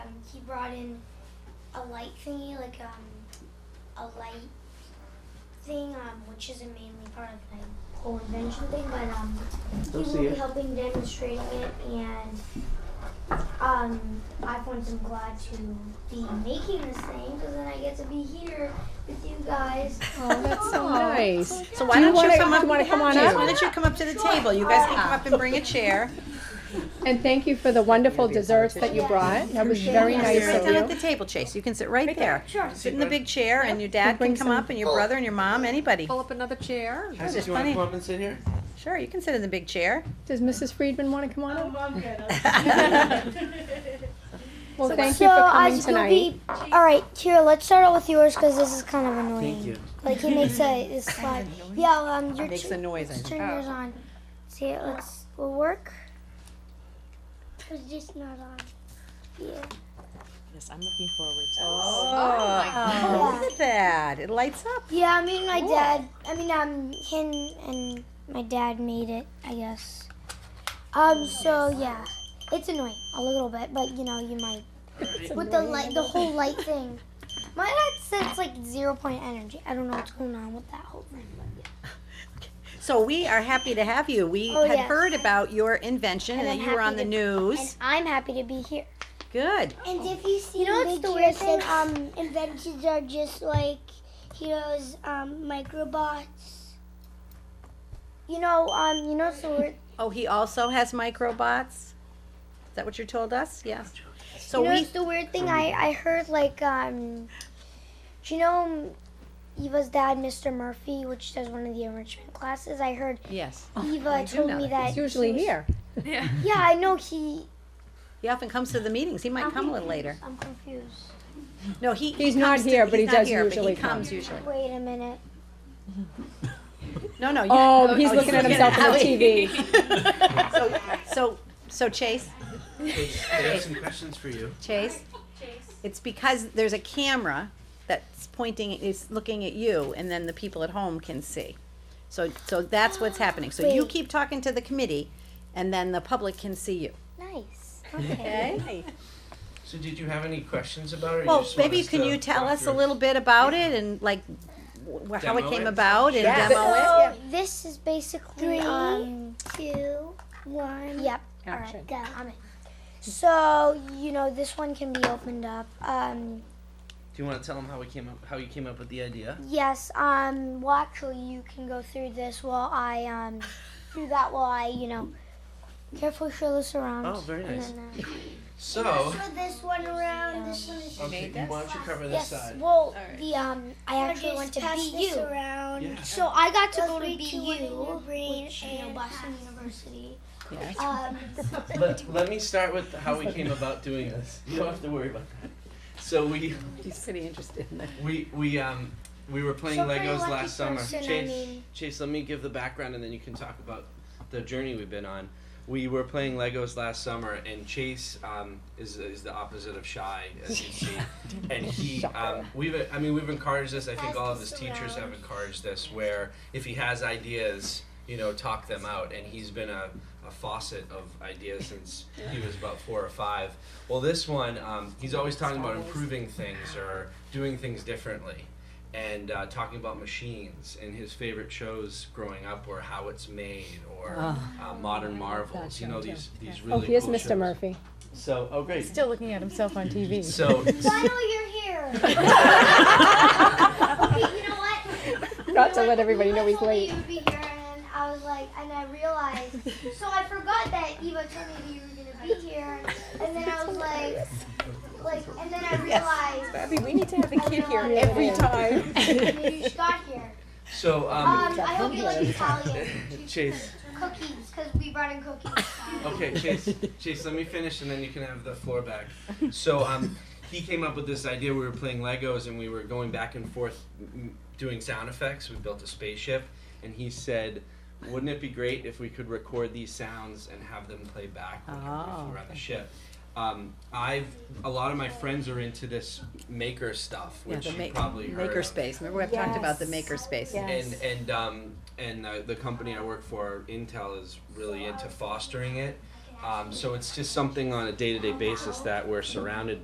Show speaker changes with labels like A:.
A: Um, brought in a light thingy, like um, a light thing, um, which isn't mainly part of my whole invention thing, but um, he
B: Don't
A: will
B: see
A: be
B: it.
A: helping demonstrating it, and um, I find I'm glad to be making this thing because then I get to be here with you guys.
C: Oh, that's so nice.
D: So why
C: Do you
D: don't
C: wanna-
D: you come
C: do
D: up?
C: you wanna come on
D: James,
C: up?
D: Why don't you come up to the table? You guys can come up and bring a chair.
C: And thank you for the wonderful desserts that you brought. That was very
D: You
C: nice
D: sit right down at
C: of
D: the
C: you.
D: table, Chase. You can sit right there.
A: Sure.
D: Sit in the big chair and your dad
C: bring
D: can come
C: some-
D: up and your brother and your mom, anybody.
E: Pull up another chair.
B: How's
D: there's
B: this? You want
D: plenty.
B: to come up and sit here?
D: Sure, you can sit in the big chair.
C: Does Mrs. Friedman want to come on up? Well, thank
A: so
C: you for
A: I
C: coming
A: was gonna
C: tonight.
A: be all right. Here, let's start out with yours because this is kind of annoying.
B: Thank you.
A: Like he makes a this slide. Yeah, um, your
D: Makes
A: tu-
D: a noise, I think.
A: turn yours on. See, it looks will work. It's just not on. Yeah.
F: Yes, I'm looking forward to this.
D: Oh, look at that. It lights up.
A: Yeah, I mean my dad. I mean um him and my dad made it. I guess. Um. So yeah, it's annoying a little bit, but you know you might with the light, the whole light thing. My dad said it's like zero point energy. I don't know what's going on with that whole thing. But yeah.
D: So we are happy to have you. We
A: Oh,
D: had
A: yes.
D: heard about your invention and
A: And
D: that
A: I'm
D: you were
A: happy
D: on the
A: to-
D: news.
A: I'm happy to be here.
D: Good.
A: And if you see, Oh. you know what's the weird thing? Um, inventions are just like heroes, um, microbots. You know, um, you know, so weird.
D: Oh, he also has microbots? Is that what you told us? Yes. So
A: you know,
D: we,
A: it's the weird thing. I I heard like um, do you know um, Eva's dad, Mr. Murphy, which does one of the enrichment classes. Oh, I heard
D: yes.
A: Eva
D: do
A: told
D: know
A: me
D: that.
A: that
C: It's usually
A: he was-
C: here.
A: Yeah, I know he.
D: He often comes to the meetings. He might come a little later.
A: I'm confused.
D: No, he. he
C: He's not
D: comes to-
C: here, but he
D: he's not
C: does
D: here, but
C: usually
D: He
C: come.
D: comes usually.
A: Wait a minute.
D: No, no. you-
C: Oh, he's looking at
D: looking
C: himself
D: at
C: on the
D: Ali.
C: TV.
D: So, so, so Chase,
B: I have some questions for you.
D: Chase. It's because there's a camera that's pointing, is looking at you, and then the people at home can see. So, so that's what's happening. So you
A: Wait.
D: keep talking to the committee, and then the public can see you.
A: Nice. Okay.
D: Okay.
B: So, did you have any questions about it? or
D: Well,
B: just want
D: maybe
B: us
D: can
B: to
D: you tell
B: walk
D: us a
B: through it?
D: little bit about it and like wh- how it
B: Demo
D: came
B: it?
D: about and
C: Yes.
D: demo it?
A: So this is basically um,
G: two, one.
A: yep.
C: Action.
A: All right, go. I'm in. So you know this one can be opened up. Um,
B: Do you want to tell them how we came up, how you came up with the idea?
A: yes. Um, well, actually, you can go through this while I um do that while I you know carefully show this around.
B: Oh, very
A: And
D: Mm-hmm.
B: nice.
A: then, uh,
B: So,
G: this one around, this one is.
B: okay, why don't you cover
A: yes.
B: this side?
A: Well, the um, I actually
G: Just
A: went to
G: pass this
A: BU.
G: around.
B: Yeah.
A: So I got to go
G: Feel
A: to
G: free to win in your
A: BU,
G: brain
A: which you know
G: and
A: Boston
G: pass.
A: University.
D: Yes.
A: Um,
B: Let, let me start with how we came about doing this. You don't have to worry about that. So we
D: He's pretty interested in that.
B: we we um we were playing
A: So pretty
B: Legos
A: lucky
B: last summer.
A: person, I
B: Chase,
A: mean.
B: Chase, let me give the background and then you can talk about the journey we've been on. We were playing Legos last summer, and Chase um, is is the opposite of shy, as you see. and he, um, we've I mean we've encouraged this. I think all of his teachers have encouraged this, where if he has ideas, you know, talk them out. And he's been a a faucet of ideas since he was about four or five. Well, this one, um, he's always talking about improving things or doing things differently, and uh, talking about machines. And his favorite shows growing up were How It's Made or uh, Modern Marvels. You know these these really.
C: Oh, here's
B: cool
C: Mr.
B: shows.
C: Murphy.
B: So oh great.
F: Still looking at himself on TV.
B: So
A: I know you're here. okay, you know what?
C: Not to let everybody
A: Eva
C: know he's
A: told me
C: late.
A: You would be here, and I was like, and I realized. so I forgot that Eva told me that you were gonna be here, and then I was like, like, and then I realized.
F: Abby, we need to have the
A: I
F: kid here
A: realized
F: every time.
A: that You just got here.
B: so
A: Um,
B: um,
A: I hope you like Italian
B: Chase.
A: cookies because we brought in cookies.
B: Okay, Chase, Chase, let me finish and then you can have the floor back. So, um, he came up with this idea. We were playing Legos and we were going back and forth m- doing sound effects. We built a spaceship, and he said, "Wouldn't it be great if we could record these sounds and have them play back when
D: Oh.
B: we were on the ship?" Um, I've a lot of my friends are into this maker stuff,
D: Yeah,
B: which
D: the
B: you
D: ma-
B: probably heard
D: maker
B: of
D: space. Remember, I've talked about the maker space.
B: and and um, and uh, the company I work for, Intel, is really into fostering it. Um, so it's just something on a day-to-day basis that we're surrounded